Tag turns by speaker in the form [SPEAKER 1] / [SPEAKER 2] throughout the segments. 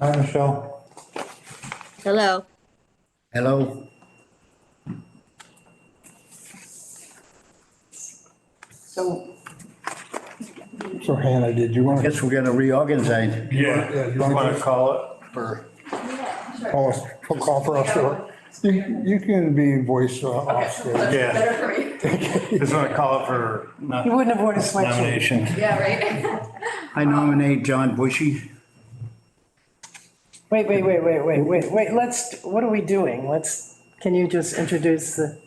[SPEAKER 1] Hi, Michelle.
[SPEAKER 2] Hello.
[SPEAKER 3] Hello,
[SPEAKER 4] So,
[SPEAKER 1] So Hannah, did you
[SPEAKER 3] I
[SPEAKER 1] want to
[SPEAKER 3] guess we're gonna reorganize.
[SPEAKER 1] Yeah,
[SPEAKER 5] Yeah,
[SPEAKER 1] you
[SPEAKER 5] you
[SPEAKER 1] wanna
[SPEAKER 5] want to call it for,
[SPEAKER 6] Oh,
[SPEAKER 1] call us, call for us? or- You, you can be voice uh, off. there.
[SPEAKER 5] yeah,
[SPEAKER 6] Better for you.
[SPEAKER 5] just want to call it for not-
[SPEAKER 4] you wouldn't have worn a sweatshirt.
[SPEAKER 5] nomination.
[SPEAKER 6] Yeah, right?
[SPEAKER 3] I nominate John Bushy.
[SPEAKER 4] Wait, wait, wait, wait, wait, wait, wait, let's, what are we doing? Let's, can you just introduce the,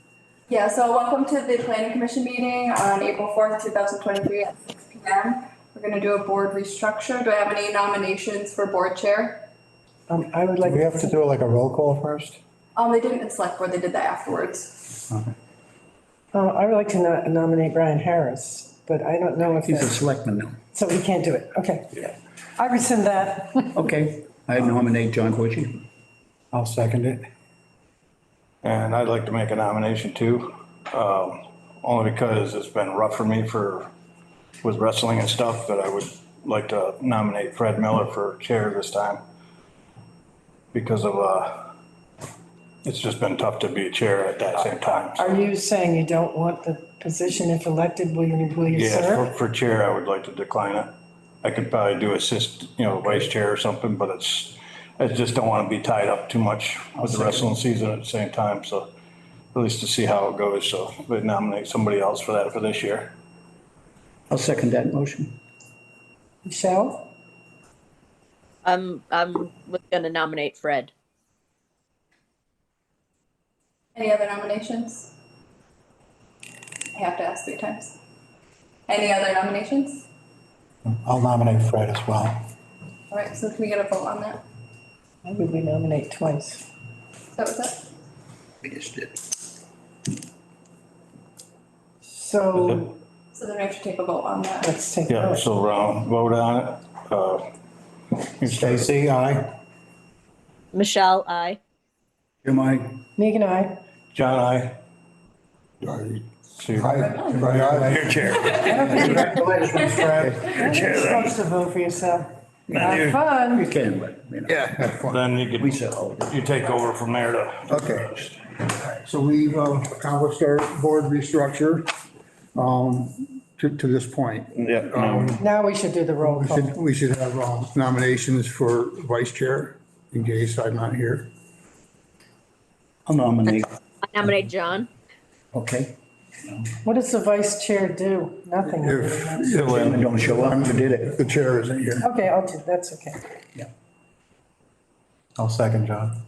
[SPEAKER 6] Yeah, so welcome to the planning commission meeting on April fourth, two thousand twenty-three at six P M. We're gonna do a board restructure. Do I have any nominations for board chair?
[SPEAKER 4] um, I would
[SPEAKER 1] Do
[SPEAKER 4] like.
[SPEAKER 1] We have to do like a roll call first?
[SPEAKER 6] Um, they didn't select board, they did that afterwards.
[SPEAKER 4] Uh, I would like to no- nominate Brian Harris, but I don't know if,
[SPEAKER 3] He's a
[SPEAKER 4] that-
[SPEAKER 3] selectman now.
[SPEAKER 4] so we can't do it, okay. I rescind that.
[SPEAKER 3] Okay, I nominate John Bushy.
[SPEAKER 1] I'll second it.
[SPEAKER 5] And I'd like to make a nomination too, um, only because it's been rough for me for, with wrestling and stuff, but I would like to nominate Fred Miller for chair this time. Because of, uh, it's just been tough to be chair at that same time.
[SPEAKER 4] Are you saying you don't want the position if elected, will you, will you
[SPEAKER 5] Yeah,
[SPEAKER 4] serve?
[SPEAKER 5] for, for chair, I would like to decline it. I could probably do assist, you know, vice chair or something, but it's, I just don't want to be tied up too much with the wrestling season at the same time, so at least to see how it goes, so we nominate somebody else for that for this year.
[SPEAKER 3] I'll second that motion.
[SPEAKER 4] Michelle?
[SPEAKER 2] I'm I'm gonna nominate Fred.
[SPEAKER 6] Any other nominations? I have to ask three times. Any other nominations?
[SPEAKER 1] I'll nominate Fred as well.
[SPEAKER 6] All right, so can we get a vote on that?
[SPEAKER 4] I would we nominate twice.
[SPEAKER 6] That was it?
[SPEAKER 3] We just did.
[SPEAKER 4] So
[SPEAKER 6] So then we have to take a vote on that.
[SPEAKER 4] let's take.
[SPEAKER 5] Yeah,
[SPEAKER 4] vote.
[SPEAKER 5] so, um, vote on it. Uh,
[SPEAKER 1] Stacy, aye.
[SPEAKER 2] Michelle, I.
[SPEAKER 3] Am I?
[SPEAKER 4] Megan, I,
[SPEAKER 5] John, I,
[SPEAKER 1] Aye.
[SPEAKER 5] so you're
[SPEAKER 1] Aye.
[SPEAKER 5] you're chair.
[SPEAKER 1] Congratulations, Fred.
[SPEAKER 4] you're supposed to vote for yourself. Have
[SPEAKER 5] you.
[SPEAKER 3] You
[SPEAKER 4] fun.
[SPEAKER 3] can, but, you know.
[SPEAKER 1] Yeah, have fun.
[SPEAKER 5] Then you could,
[SPEAKER 3] We said, oh,
[SPEAKER 5] you take over from there to.
[SPEAKER 1] Okay. So we've uh, accomplished our board restructure um, to, to this point.
[SPEAKER 5] Yeah. no.
[SPEAKER 4] Now we should do the roll
[SPEAKER 1] We should,
[SPEAKER 4] call.
[SPEAKER 1] we should have um, nominations for vice chair in case I'm not here.
[SPEAKER 3] I'll nominate,
[SPEAKER 2] I nominate John.
[SPEAKER 3] okay?
[SPEAKER 4] What does the vice chair do? Nothing.
[SPEAKER 1] If
[SPEAKER 3] Chairman don't show up, you did it.
[SPEAKER 1] the chair isn't here.
[SPEAKER 4] Okay, I'll do, that's okay.
[SPEAKER 3] Yeah.
[SPEAKER 1] I'll second, John.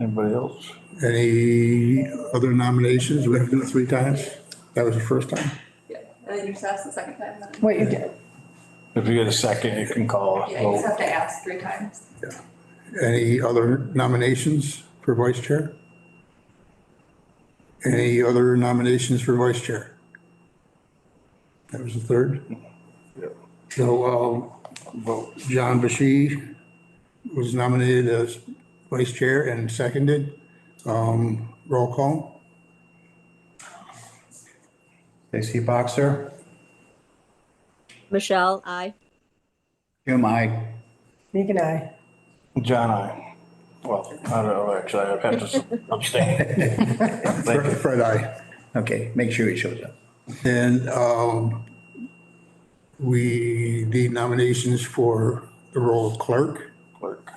[SPEAKER 5] Anybody else?
[SPEAKER 1] Any other nominations? We have to do it three times. That was the first time.
[SPEAKER 6] Yeah, and then you just ask the second time, then.
[SPEAKER 4] Wait, you did-
[SPEAKER 5] If you get a second, you can call. a
[SPEAKER 6] Yeah, you just
[SPEAKER 5] vote.
[SPEAKER 6] have to ask three times.
[SPEAKER 1] Any other nominations for vice chair? Any other nominations for vice chair? That was the third. So, um, John Bashy was nominated as vice chair and seconded. Um, Roll call.
[SPEAKER 7] Stacy Boxer,
[SPEAKER 2] Michelle, I.
[SPEAKER 3] Am I?
[SPEAKER 4] Megan, I.
[SPEAKER 5] John, I, well, I don't know, actually, I'd have to abstain.
[SPEAKER 1] Fred, Fred, I.
[SPEAKER 3] Okay, make sure he shows up.
[SPEAKER 1] And um, we need nominations for the role of clerk.
[SPEAKER 5] Clerk.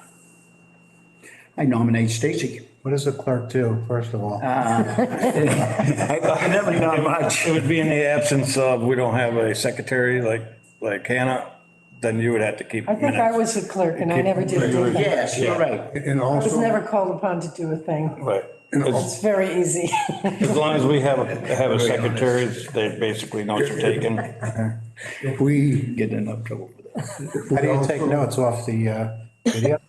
[SPEAKER 3] I nominate Stacy.
[SPEAKER 7] what does the clerk do, first of all?
[SPEAKER 3] I never know much.
[SPEAKER 5] It would be in the absence of, we don't have a secretary like, like Hannah, then you would have to keep
[SPEAKER 4] I think I
[SPEAKER 5] minutes.
[SPEAKER 4] was a clerk and I never did anything.
[SPEAKER 3] Yes, you're right.
[SPEAKER 1] And
[SPEAKER 4] I was
[SPEAKER 1] also.
[SPEAKER 4] never called upon to do a thing.
[SPEAKER 5] But
[SPEAKER 4] It's
[SPEAKER 5] as
[SPEAKER 4] very easy.
[SPEAKER 5] as long as we have, a have a secretary, they basically notes are taken.
[SPEAKER 1] If we,
[SPEAKER 3] Get in enough trouble for that.
[SPEAKER 1] if
[SPEAKER 7] How
[SPEAKER 1] we
[SPEAKER 7] do you take
[SPEAKER 1] also,
[SPEAKER 7] notes off the uh, video?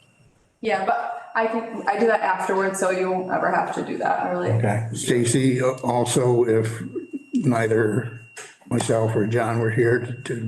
[SPEAKER 6] Yeah, but I can, I do that afterwards, so you won't ever have to do that, really.
[SPEAKER 7] Okay,
[SPEAKER 1] Stacy, uh, also if neither myself or John were here to- to